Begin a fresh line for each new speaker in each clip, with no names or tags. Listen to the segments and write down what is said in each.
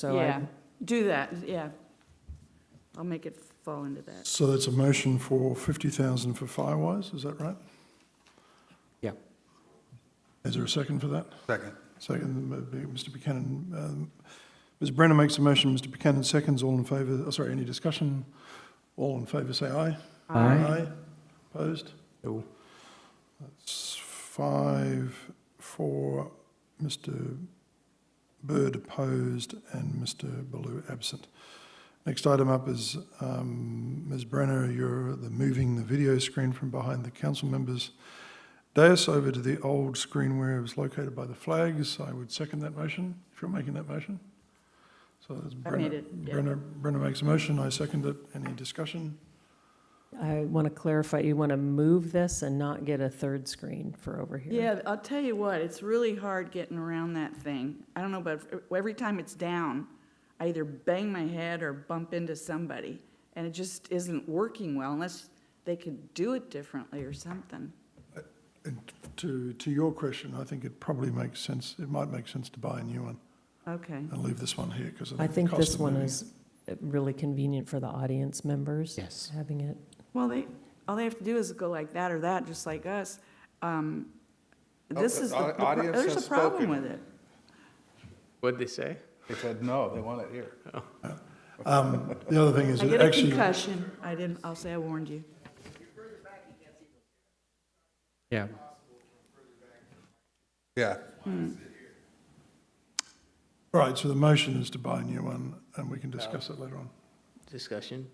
So I
Yeah.
do that, yeah. I'll make it fall into that.
So that's a motion for 50,000 for Firewise, is that right?
Yeah.
Is there a second for that?
Second.
Second, uh, Mr. Buchanan. um, Ms. Brenner makes a motion, Mr. Buchanan seconds, all in favour, oh, sorry, any discussion? All in favour, say aye. Aye. Opposed?
No.
That's five for Mr. Bird opposed and Mr. Baloo absent. Next item up is um, Ms. Brenner, you're the moving the video screen from behind the council members dais over to the old screen where it was located by the flags. I would second that motion, if you're making that motion. So that's
I
Brenner-
made it, yeah.
Brenner, Brenner makes a motion, I second it. Any discussion?
I want to clarify, you want to move this and not get a third screen for over here?
Yeah, I'll tell you what, it's really hard getting around that thing. I don't know, but every time it's down, I either bang my head or bump into somebody, and it just isn't working well unless they could do it differently or something.
And to, to your question, I think it probably makes sense, it might make sense to buy a new one
Okay,
and leave this one here because
I
of the
think
cost
this
of
one
moving
is uh,
it.
really convenient for the audience members.
Yes.
Having it,
well, they, all they have to do is go like that or that, just like us. Um, This
the
is, the-
au-
the pro-
audience
there's
has
a problem
spoken.
with it.
What'd they say?
They said, no, they want it here.
Um, The other thing is
I
it
get a
actually,
concussion. I didn't, I'll say I warned you.
Yeah.
Yeah.
right, so the motion is to buy a new one and we can discuss it later on.
Discussion?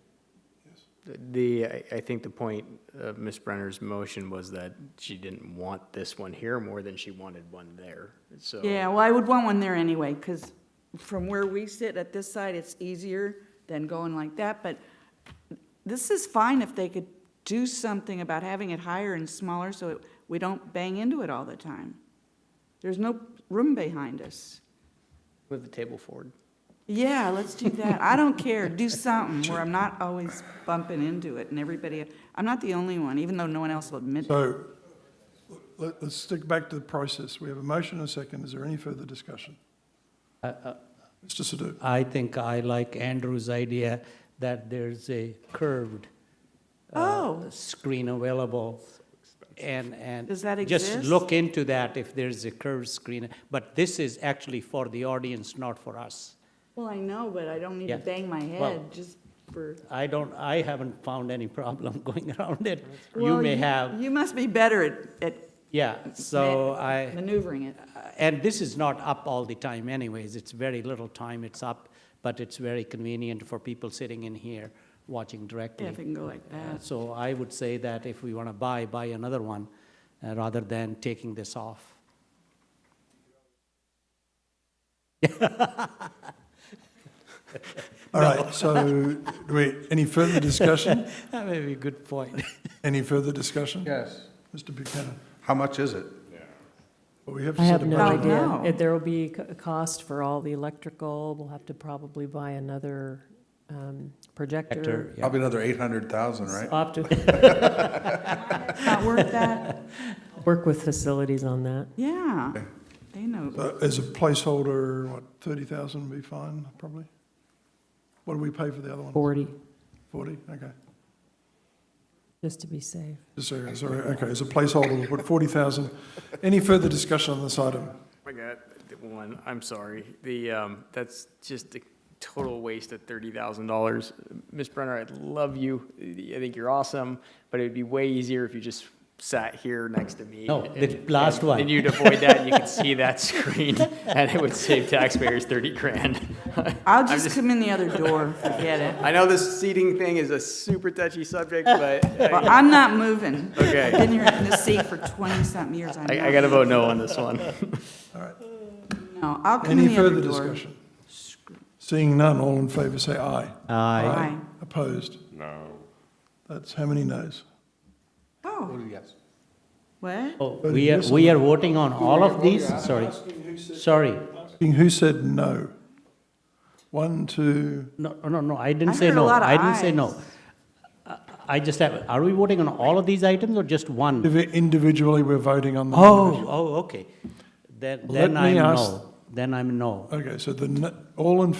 The, I- I think the point of Ms. Brenner's motion was that she didn't want this one here more than she wanted one there, so.
Yeah, well, I would want one there anyway, because from where we sit at this side, it's easier than going like that, but this is fine if they could do something about having it higher and smaller so it- we don't bang into it all the time. There's no room behind us.
Move the table forward.
Yeah, let's do that. I don't care. Do something where I'm not always bumping into it and everybody, I'm not the only one, even though no one else will admit it.
So let, let's stick back to the process. We have a motion and a second. Is there any further discussion? Mr. Sadoo,
I think I like Andrew's idea that there's a curved uh,
Oh.
screen available. And, and.
Does that
Just
exist?
look into that if there's a curved screen. But this is actually for the audience, not for us.
Well, I know, but I don't need
Yeah.
to bang my
Well-
head just for.
I don't, I haven't found any problem going around it. You
Well,
may have,
You must be better at, at
yeah, so
ma-
I.
Maneuvering it.
And this is not up all the time anyways, it's very little time it's up, but it's very convenient for people sitting in here watching
Yeah,
directly.
if it can go like
Uh,
that.
So I would say that if we want to buy, buy another one, uh, rather than taking this off.
all right, so do we, any further discussion?
That may be a good point.
Any further discussion?
Yes.
Mr. Buchanan?
How much is it?
Well, we have
I
set
have
a
no
budget.
No.
idea. If There will be c- a cost for all the electrical, we'll have to probably buy another
Actor,
um, projector.
yeah.
Probably another 800,000, right?
I'll have to
Not worth that?
work with facilities on that.
Yeah, they know.
So As a placeholder, what, 30,000 would be fine, probably? What do we pay for the other one?
40,
40, okay.
just to be safe.
Just a second, Sorry, okay, as a placeholder, we'll put 40,000. Any further discussion on this item?
I got the one, I'm sorry. The, um, that's just a total waste of thirty thousand dollars. Ms. Brenner, I love you. I think you're awesome, but it'd be way easier if you just sat here next to me.
No, the
and-
last
and-
one.
And you'd avoid that, and you could see that screen, and it would save taxpayers thirty grand.
I'll
I'm
just come in the other door, forget it.
I know this seating thing is a super touchy subject, but
Well,
I,
I'm not moving. I've
Okay.
been here in this seat for 20-something years, I
I,
know.
I gotta vote no on this one.
All right.
No, I'll come in
Any
the other
further
door.
discussion? Seeing none, all in favor say aye.
Aye.
Opposed? No. That's how many noes?
Oh, what?
Oh, We are, we are voting on all of these, sorry, sorry.
Seeing Who said no? One, two,
No, no, no, I
I
didn't say
heard a
no,
lot of
I didn't say
ayes.
no. Uh, I just have, are we voting on all of these items or just one?
Indivi- individually, we're voting on them.
Oh, oh, okay. Then,
Let
then
me
I'm
ask-
no. Then I'm no.
individually. Okay, so the, n- all in